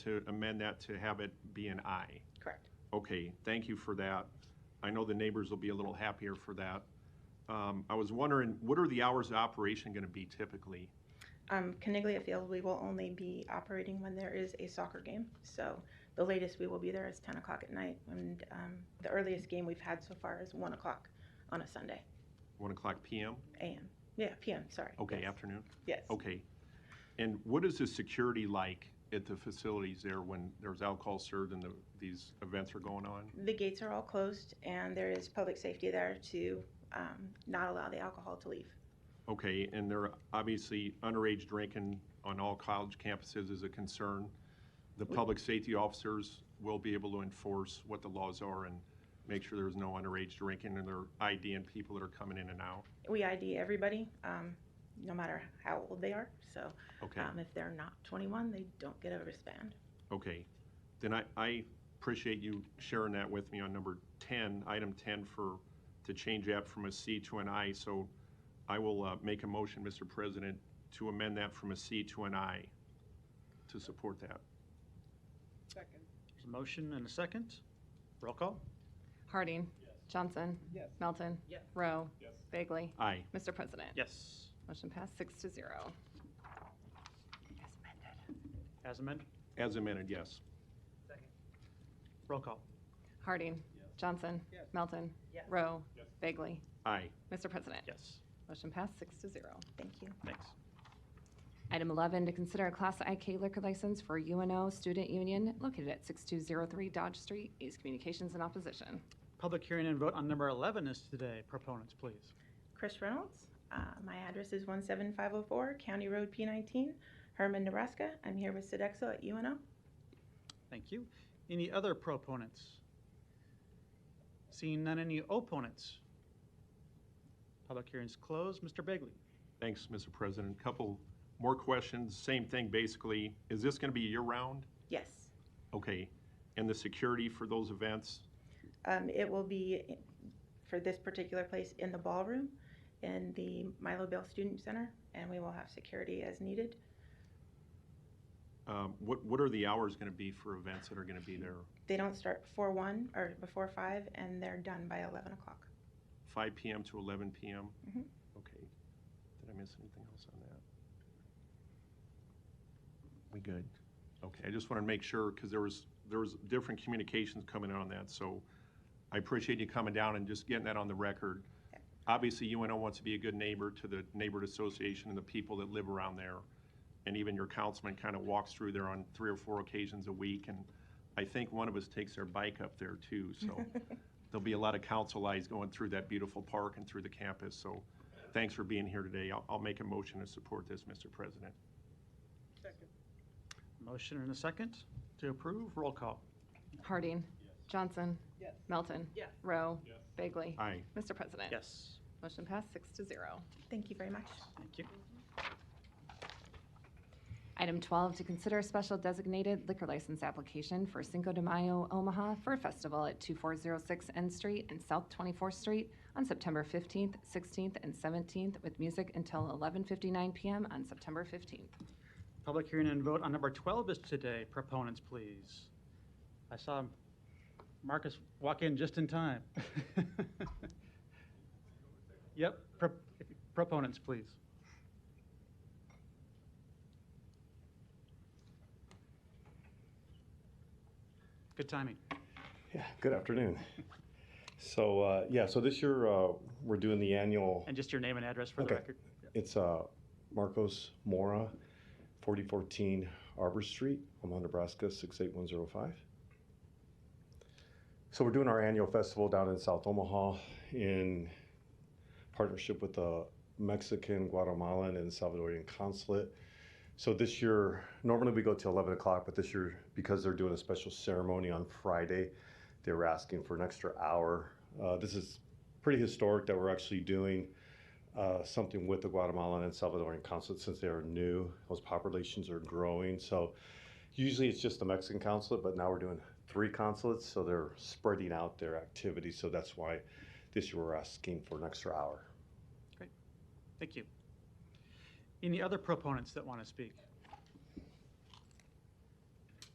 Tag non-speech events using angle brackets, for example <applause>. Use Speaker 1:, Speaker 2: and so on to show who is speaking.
Speaker 1: to amend that to have it be an I.
Speaker 2: Correct.
Speaker 1: Okay, thank you for that. I know the neighbors will be a little happier for that. Um, I was wondering, what are the hours of operation gonna be typically?
Speaker 2: Um, Caniglia Field, we will only be operating when there is a soccer game. So the latest we will be there is 10 o'clock at night. And um, the earliest game we've had so far is 1 o'clock on a Sunday,
Speaker 1: One o'clock PM?
Speaker 2: AM. Yeah, PM, sorry.
Speaker 1: Okay,
Speaker 2: Yes.
Speaker 1: afternoon?
Speaker 2: Yes.
Speaker 1: Okay. And what is the security like at the facilities there when there's alcohol served and the, these events are going on?
Speaker 2: The gates are all closed and there is public safety there to um, not allow the alcohol to leave.
Speaker 1: Okay, and there, obviously, underage drinking on all college campuses is a concern. The public safety officers will be able to enforce what the laws are and make sure there's no underage drinking and they're IDing people that are coming in and out.
Speaker 2: We ID everybody, um, no matter how old they are. So
Speaker 1: Okay,
Speaker 2: um, if they're not 21, they don't get a wristband.
Speaker 1: okay. Then I, I appreciate you sharing that with me on number ten, item ten for, to change that from a C to an I. So I will, uh, make a motion, Mr. President, to amend that from a C to an I to support that.
Speaker 3: Second.
Speaker 4: There's a motion and a second. Roll call?
Speaker 5: Harding. Johnson.
Speaker 3: Yes.
Speaker 5: Melton.
Speaker 3: Yes.
Speaker 5: Rowe.
Speaker 3: Yes.
Speaker 5: Bagley.
Speaker 1: Aye.
Speaker 5: Mr. President.
Speaker 4: Yes.
Speaker 5: Motion passed six to zero. As amended.
Speaker 1: As
Speaker 4: As amended,
Speaker 1: amended, yes.
Speaker 3: Second.
Speaker 4: roll call.
Speaker 5: Harding.
Speaker 3: Yes.
Speaker 5: Johnson.
Speaker 3: Yes.
Speaker 5: Melton.
Speaker 3: Yes.
Speaker 5: Rowe.
Speaker 3: Yes.
Speaker 5: Bagley.
Speaker 1: Aye.
Speaker 5: Mr. President.
Speaker 4: Yes,
Speaker 5: Motion passed six to zero.
Speaker 2: Thank you.
Speaker 4: thanks.
Speaker 5: Item 11, to consider a Class IK liquor license for UNO Student Union located at 6203 Dodge Street. East Communications in opposition.
Speaker 4: Public hearing and vote on number 11 is today. Proponents, please.
Speaker 2: Chris Reynolds. Uh, my address is 17504 County Road P19, Herman, Nebraska. I'm here with Sodexo at UNO.
Speaker 4: Thank you. Any other proponents? Seeing none, any opponents? Public hearing's closed. Mr. Bagley?
Speaker 1: Thanks, Mr. President. Couple more questions, same thing basically. Is this gonna be year-round?
Speaker 2: Yes.
Speaker 1: Okay, and the security for those events?
Speaker 2: Um, it will be i- for this particular place in the ballroom in the Milo Bell Student Center, and we will have security as needed.
Speaker 1: Um, what, what are the hours gonna be for events that are gonna be there?
Speaker 2: They don't start before 1 or before 5, and they're done by 11 o'clock.
Speaker 1: Five PM to eleven PM?
Speaker 2: Mhm.
Speaker 1: Okay. Did I miss anything else on that? We good? Okay, I just wanted to make sure, because there was, there was different communications coming in on that, so I appreciate you coming down and just getting that on the record. Obviously, UNO wants to be a good neighbor to the neighborhood association and the people that live around there. And even your councilman kind of walks through there on three or four occasions a week, and I think one of us takes their bike up there too, so. There'll be a lot of council eyes going through that beautiful park and through the campus, so thanks for being here today. I'll, I'll make a motion to support this, Mr. President.
Speaker 3: Second.
Speaker 4: Motion and a second to approve. Roll call.
Speaker 5: Harding. Johnson.
Speaker 3: Yes.
Speaker 5: Melton.
Speaker 3: Yes.
Speaker 5: Rowe.
Speaker 3: Yes.
Speaker 5: Bagley.
Speaker 1: Aye.
Speaker 5: Mr. President.
Speaker 4: Yes,
Speaker 5: Motion passed six to zero.
Speaker 2: Thank you very much.
Speaker 4: thank you.
Speaker 5: Item 12, to consider a special designated liquor license application for Cinco de Mayo Omaha for a festival at 2406 N Street and South 24th Street on September 15th, 16th, and 17th with music until 11:59 PM on September 15th.
Speaker 4: Public hearing and vote on number 12 is today. Proponents, please. I saw Marcus walk in just in time. <laughs> Yep, pro- proponents, please. Good timing.
Speaker 6: Yeah, good afternoon. So, uh, yeah, so this year, uh, we're doing the annual,
Speaker 4: And just your name and address for the
Speaker 6: Okay.
Speaker 4: record.
Speaker 6: it's, uh, Marcos Mora, forty fourteen Arbor Street, Omaha, Nebraska, six eight one zero five. So we're doing our annual festival down in South Omaha in partnership with the Mexican, Guatemalan, and Salvadorian consulate. So this year, normally we go till eleven o'clock, but this year, because they're doing a special ceremony on Friday, they were asking for an extra hour. Uh, this is pretty historic that we're actually doing uh, something with the Guatemalan and Salvadoran consulate since they are new. Those populations are growing. So usually it's just the Mexican consulate, but now we're doing three consulates, so they're spreading out their activities. So that's why this year we're asking for an extra hour.
Speaker 4: Thank you. Any other proponents that want to speak?